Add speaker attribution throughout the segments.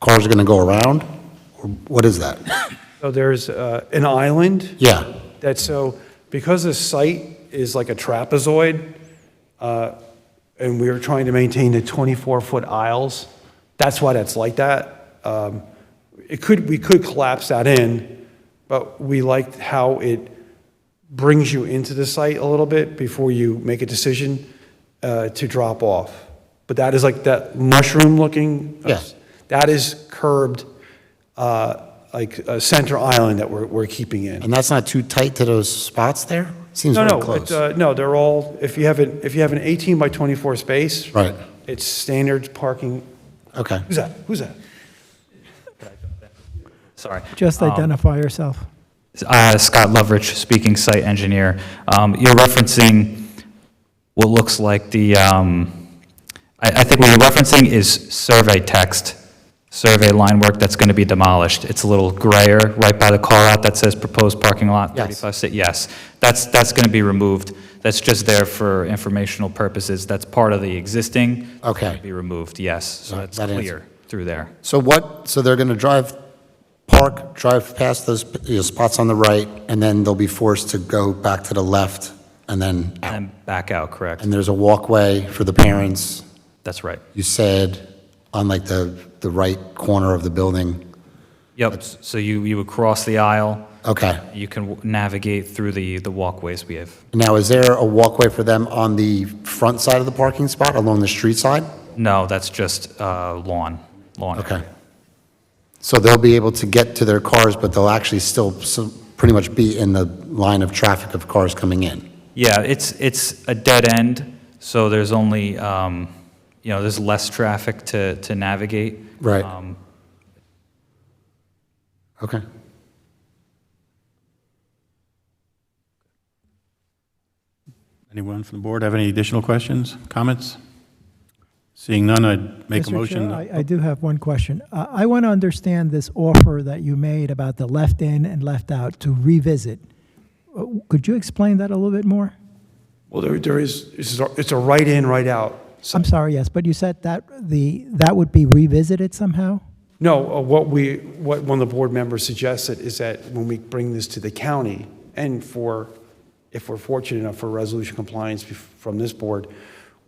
Speaker 1: cars are going to go around? Or What is that?
Speaker 2: So there's uh, an island
Speaker 1: Yeah,
Speaker 2: that, so because the site is like a trapezoid, uh, and we are trying to maintain the 24-foot aisles, that's why that's like that. Um, It could, we could collapse that in, but we liked how it brings you into the site a little bit before you make a decision uh, to drop off. But that is like that mushroom-looking.
Speaker 1: Yes.
Speaker 2: That is curbed, uh, like uh, center island that we're, we're keeping in.
Speaker 1: and that's not too tight to those spots there? Seems
Speaker 2: No,
Speaker 1: very
Speaker 2: no,
Speaker 1: close.
Speaker 2: it's, uh, no, they're all, if you have an, if you have an 18 by 24 space.
Speaker 1: Right.
Speaker 2: It's standard parking.
Speaker 1: Okay.
Speaker 2: Who's that? Who's that?
Speaker 3: Sorry.
Speaker 4: Just
Speaker 3: Um,
Speaker 4: identify yourself.
Speaker 3: uh, Scott Lovrich, speaking site engineer. Um, You're referencing what looks like the, um, I I think what you're referencing is survey text, survey line work that's going to be demolished. It's a little grayer right by the call-out that says proposed parking lot
Speaker 1: Yes.
Speaker 3: 35 Sa- Yes, that's, that's going to be removed. That's just there for informational purposes. That's part of the existing. It's
Speaker 1: Okay.
Speaker 3: gonna Be removed, yes. So
Speaker 1: Right,
Speaker 3: that's
Speaker 1: that answer-
Speaker 3: clear through there.
Speaker 1: So what, so they're going to drive, park, drive past those you know, spots on the right, and then they'll be forced to go back to the left and then out?
Speaker 3: And back out, correct?
Speaker 1: And there's a walkway for the parents,
Speaker 3: That's right.
Speaker 1: you said, on like the, the right corner of the building?
Speaker 3: Yep, so you, you would cross the aisle,
Speaker 1: Okay.
Speaker 3: you can w- navigate through the, the walkways we have.
Speaker 1: Now, is there a walkway for them on the front side of the parking spot, along the street side?
Speaker 3: No, that's just uh, lawn, lawn.
Speaker 1: Okay. So they'll be able to get to their cars, but they'll actually still so- pretty much be in the line of traffic of cars coming in?
Speaker 3: Yeah, it's, it's a dead end, so there's only, um, you know, there's less traffic to, to navigate.
Speaker 1: Right.
Speaker 3: Um,
Speaker 1: Okay.
Speaker 5: Anyone from the board have any additional questions, comments? Seeing none, I'd make a
Speaker 4: Mr. Chair,
Speaker 5: motion.
Speaker 4: I I do have one question. Uh, I want to understand this offer that you made about the left-in and left-out to revisit. Uh, Could you explain that a little bit more?
Speaker 2: Well, there, there is, this is a- it's a right in, right out.
Speaker 4: I'm sorry, yes, but you said that the, that would be revisited somehow?
Speaker 2: No, uh, what we, what one of the board members suggested is that when we bring this to the county, and for, if we're fortunate enough for resolution compliance bef- from this board,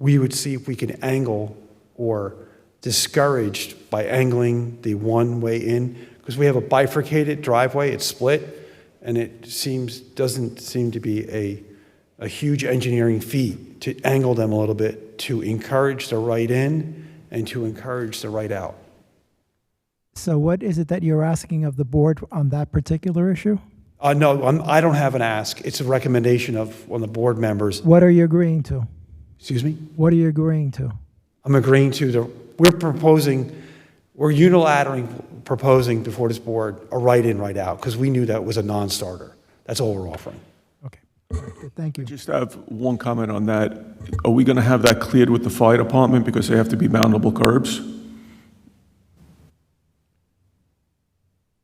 Speaker 2: we would see if we can angle or discouraged by angling the one-way in, because we have a bifurcated driveway, it's split, and it seems, doesn't seem to be a, a huge engineering feat to angle them a little bit, to encourage the right in and to encourage the right out.
Speaker 4: So what is it that you're asking of the board on that particular issue?
Speaker 2: Uh, no, I'm, I don't have an ask. It's a recommendation of one of the board members.
Speaker 4: What are you agreeing to?
Speaker 2: Excuse me?
Speaker 4: What are you agreeing to?
Speaker 2: I'm agreeing to the, we're proposing, we're unilaterally proposing before this board a write-in, write-out, because we knew that was a non-starter. That's all we're offering.
Speaker 4: Okay, all right, good, thank you.
Speaker 6: Just have one comment on that. Are we going to have that cleared with the fire department because they have to be mountable curbs?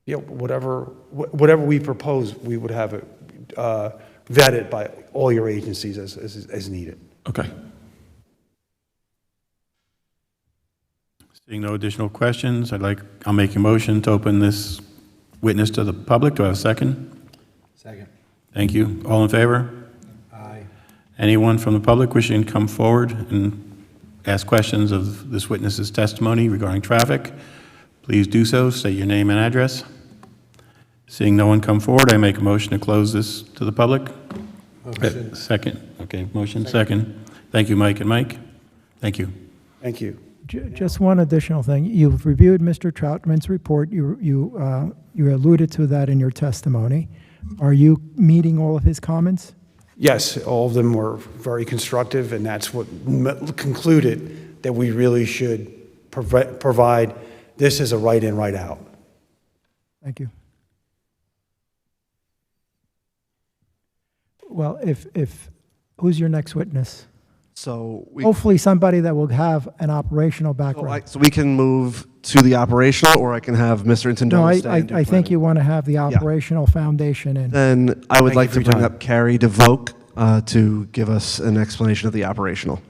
Speaker 2: You know, whatever, wh- whatever we propose, we would have it uh, vetted by all your agencies as, as, as needed.
Speaker 6: Okay.
Speaker 5: Seeing no additional questions, I'd like, I'll make a motion to open this witness to the public. Do I have a second?
Speaker 2: Second.
Speaker 5: Thank you. All in favor?
Speaker 2: Aye.
Speaker 5: Anyone from the public wishing to come forward and ask questions of this witness's testimony regarding traffic? Please do so, state your name and address. Seeing no one come forward, I make a motion to close this to the public. Uh, Second, okay, motion second. Thank you, Mike and Mike. Thank you.
Speaker 2: Thank you.
Speaker 4: Ju- Just one additional thing. You've reviewed Mr. Troutman's report. You, you, uh, you alluded to that in your testimony. Are you meeting all of his comments?
Speaker 2: Yes, all of them were very constructive, and that's what m- concluded that we really should prov- provide this as a right-in, right-out.
Speaker 4: Thank you. Well, if, if, who's your next witness?
Speaker 7: So we,
Speaker 4: Hopefully somebody that will have an operational
Speaker 7: so I-
Speaker 4: background.
Speaker 7: so we can move to the operational, or I can have Mr.
Speaker 4: No,
Speaker 7: Intendola
Speaker 4: I,
Speaker 7: stay
Speaker 4: I,
Speaker 7: and do
Speaker 4: I think
Speaker 7: planning.
Speaker 4: you want to have the operational foundation in.
Speaker 7: Then I would
Speaker 2: Thank
Speaker 7: like
Speaker 2: you
Speaker 7: to
Speaker 2: for your
Speaker 7: bring
Speaker 2: time.
Speaker 7: up Carrie DeVoe uh, to give us an explanation of the operational.